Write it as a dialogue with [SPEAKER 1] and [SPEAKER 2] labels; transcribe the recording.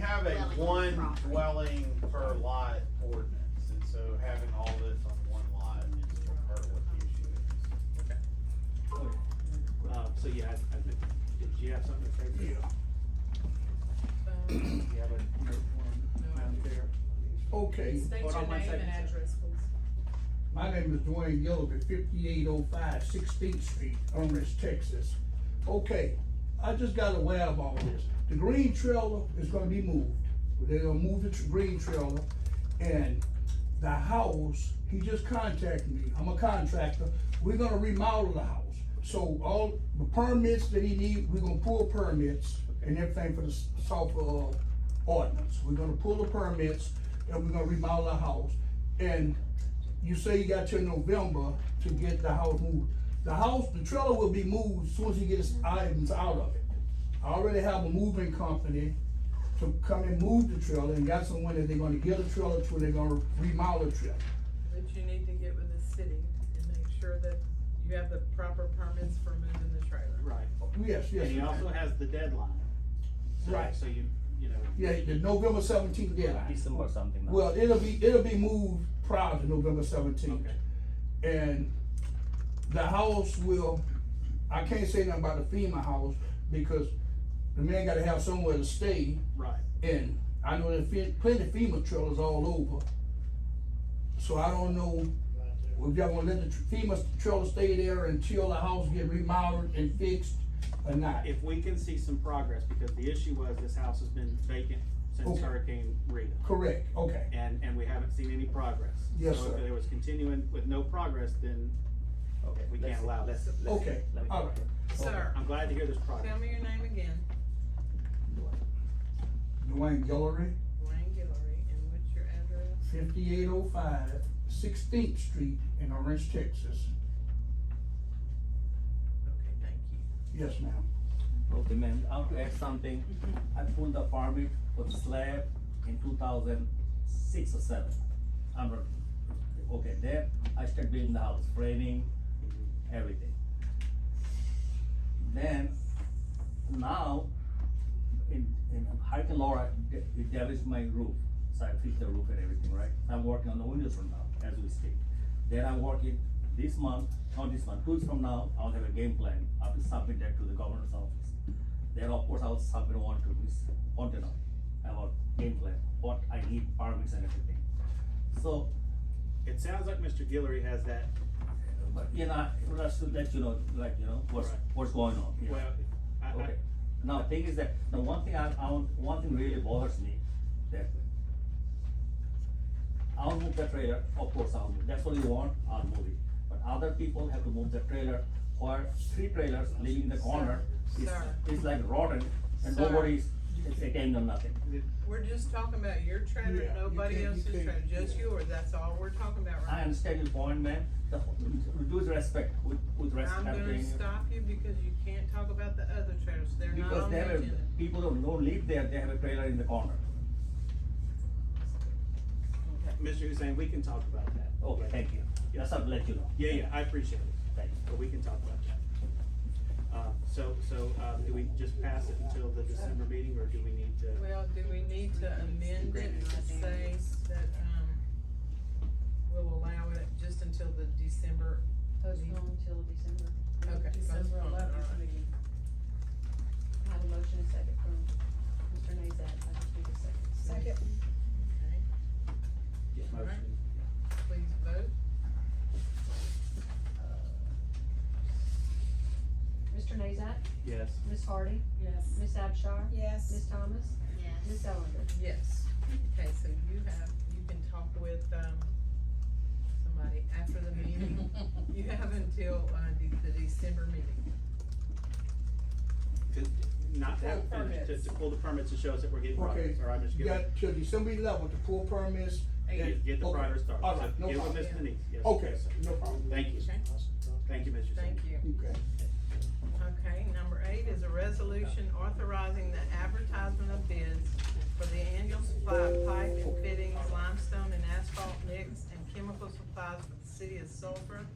[SPEAKER 1] have a
[SPEAKER 2] Dwelling on
[SPEAKER 1] one
[SPEAKER 2] property.
[SPEAKER 1] dwelling per lot ordinance, and so having all this on one lot is part of what the issue is.
[SPEAKER 3] Uh, so yeah, I, I think, did you have something to say? Yeah.
[SPEAKER 4] Um,
[SPEAKER 3] Do you have a note form, Madam Chair?
[SPEAKER 5] Okay,
[SPEAKER 4] State
[SPEAKER 3] Hold
[SPEAKER 4] your
[SPEAKER 3] on one
[SPEAKER 4] name
[SPEAKER 3] second,
[SPEAKER 4] and
[SPEAKER 3] sir.
[SPEAKER 4] address, please.
[SPEAKER 5] my name is Dwayne Gillard, fifty-eight oh five Sixteenth Street, Orange, Texas. Okay, I just got aware of all this. The green trailer is gonna be moved. They're gonna move the tr- green trailer and the house, he just contacted me, I'm a contractor, we're gonna remodel the house. So all the permits that he need, we're gonna pull permits and everything for the s- sulfur uh, ordinance. We're gonna pull the permits and we're gonna remodel the house. And you say you got till November to get the house moved. The house, the trailer will be moved as soon as he gets items out of it. I already have a moving company to come and move the trailer and got someone that they're gonna get a trailer to, they're gonna remodel the trailer.
[SPEAKER 4] But you need to get with the city and make sure that you have the proper permits for moving the trailer.
[SPEAKER 3] Right,
[SPEAKER 5] Yes, yes.
[SPEAKER 3] and he
[SPEAKER 5] yes.
[SPEAKER 3] also has the deadline. So-
[SPEAKER 5] Right.
[SPEAKER 3] So you, you know.
[SPEAKER 5] Yeah, the November seventeenth deadline.
[SPEAKER 6] December or something. no?
[SPEAKER 5] Well, it'll be, it'll be moved prior to November seventeenth.
[SPEAKER 3] Okay.
[SPEAKER 5] And the house will, I can't say nothing about the FEMA house because the man gotta have somewhere to stay.
[SPEAKER 3] Right,
[SPEAKER 5] And I know there's fe- plenty of FEMA trailers all over. So I don't know if y'all gonna let the tr- FEMA trailer stay there until the house get remodeled and fixed or not.
[SPEAKER 3] if we can see some progress, because the issue was this house has been vacant since
[SPEAKER 5] Okay.
[SPEAKER 3] Hurricane Rita.
[SPEAKER 5] Correct, okay.
[SPEAKER 3] And, and we haven't seen any progress.
[SPEAKER 5] Yes,
[SPEAKER 3] So
[SPEAKER 5] sir.
[SPEAKER 3] if there was continuing with no progress, then
[SPEAKER 6] Okay,
[SPEAKER 3] we
[SPEAKER 6] let's
[SPEAKER 3] can't
[SPEAKER 6] see,
[SPEAKER 3] allow
[SPEAKER 6] let's-
[SPEAKER 3] this.
[SPEAKER 6] let's see,
[SPEAKER 5] Okay,
[SPEAKER 6] let me-
[SPEAKER 5] alright.
[SPEAKER 4] Sir,
[SPEAKER 3] I'm glad to hear there's progress.
[SPEAKER 4] tell me your name again,
[SPEAKER 5] Dwayne Gillery,
[SPEAKER 4] Wayne Guillory, and what's your address?
[SPEAKER 5] fifty-eight oh five Sixteenth Street in Orange, Texas.
[SPEAKER 4] Okay, thank you.
[SPEAKER 5] Yes, ma'am.
[SPEAKER 6] Okay, ma'am, I want to add something. I pulled the permit for the slab in two thousand six or seven. I'm, not- okay, there, I start building the house, framing, everything. Then, now, in, in Hurricane Laura, it it damaged my roof, so I fixed the roof and everything, right? I'm working on the windows right now, as we speak. Then I'm working this month, not this month, two weeks from now, I'll have a game plan, I will submit that to the governor's office. Then, of course, I'll submit one to this, want to know, about game plan, what I need, permits and everything. So,
[SPEAKER 3] It sounds like Mr. Guillory has that,
[SPEAKER 6] but, you know, just to let you know, like, you know, what's,
[SPEAKER 3] Right.
[SPEAKER 6] what's going on. yeah.
[SPEAKER 3] well, I, I,
[SPEAKER 6] Okay, now, thing is that, the one thing I, I, want- one thing really bothers me, that I'll move the trailer, of course I'll move, that's what you want, I'll move it, but other people have to move the trailer, where three trailers living in the corner is,
[SPEAKER 4] Sir.
[SPEAKER 6] is like rotten, and
[SPEAKER 4] Sir.
[SPEAKER 6] nobody's, it's again on nothing.
[SPEAKER 4] We're just talking about your trailer,
[SPEAKER 5] Yeah, you
[SPEAKER 4] nobody
[SPEAKER 5] can't- you
[SPEAKER 4] else's
[SPEAKER 5] can't-
[SPEAKER 4] trailer, just
[SPEAKER 5] yeah.
[SPEAKER 4] yours, that's all we're talking about
[SPEAKER 6] I
[SPEAKER 4] right
[SPEAKER 6] understand your point, man, the, with with respect, with, with
[SPEAKER 4] now. I'm
[SPEAKER 6] respect. I'm
[SPEAKER 4] gonna
[SPEAKER 6] telling you.
[SPEAKER 4] stop you because you can't talk about the other trailers, they're not
[SPEAKER 6] Because
[SPEAKER 4] on
[SPEAKER 6] they
[SPEAKER 4] the
[SPEAKER 6] have,
[SPEAKER 4] agenda.
[SPEAKER 6] people don't, don't live there, they have a trailer in the corner,
[SPEAKER 3] Mr. Hussein, we can talk about that.
[SPEAKER 6] okay, thank you, that's what I'll let you know.
[SPEAKER 3] Yeah, yeah, I appreciate it,
[SPEAKER 6] Thank you.
[SPEAKER 3] but we can talk about that. Uh, so, so, um, do we just pass it until the December meeting, or do we need to?
[SPEAKER 4] Well, do we need to amend it to say that, um, we'll allow it just until the December?
[SPEAKER 7] Postpone till December.
[SPEAKER 4] Okay,
[SPEAKER 7] December
[SPEAKER 4] postpone,
[SPEAKER 7] eleventh
[SPEAKER 4] alright.
[SPEAKER 7] meeting. I have a motion and second from Mr. Nazat, I just need a second.
[SPEAKER 4] Okay,
[SPEAKER 3] Yeah, motion.
[SPEAKER 4] Please vote.
[SPEAKER 7] Mr. Nazat,
[SPEAKER 3] Yes.
[SPEAKER 7] Ms. Hardy,
[SPEAKER 4] Yes.
[SPEAKER 7] Ms. Abchar,
[SPEAKER 8] Yes.
[SPEAKER 7] Ms. Thomas, Ms.
[SPEAKER 2] Yes.
[SPEAKER 7] Ellender.
[SPEAKER 4] Yes, okay, so you have, you can talk with, um, somebody after the meeting. You have until, uh, the, the December meeting.
[SPEAKER 3] To- Not to have
[SPEAKER 4] Pull
[SPEAKER 3] finished, to,
[SPEAKER 4] permits.
[SPEAKER 3] to pull the permits to show us that we're getting progress,
[SPEAKER 5] Okay,
[SPEAKER 3] all right, Mr.
[SPEAKER 5] you
[SPEAKER 3] Guillory?
[SPEAKER 5] got till December eleventh to pull permits.
[SPEAKER 3] Get- Get the
[SPEAKER 5] Okay.
[SPEAKER 3] progress started.
[SPEAKER 5] All
[SPEAKER 3] So
[SPEAKER 5] right, no
[SPEAKER 3] Get with
[SPEAKER 5] problem.
[SPEAKER 3] Ms. Denise, yes.
[SPEAKER 5] Okay,
[SPEAKER 3] yes, sir.
[SPEAKER 5] no problem.
[SPEAKER 3] Thank you,
[SPEAKER 4] Okay.
[SPEAKER 3] thank you, Mr.
[SPEAKER 4] Thank
[SPEAKER 3] Hussein.
[SPEAKER 4] you.
[SPEAKER 5] Okay.
[SPEAKER 4] Okay, number eight is a resolution authorizing the advertisement of bids for the annual supply of pipe and fittings, limestone and asphalt mix, and chemical supplies for the city of Sulphur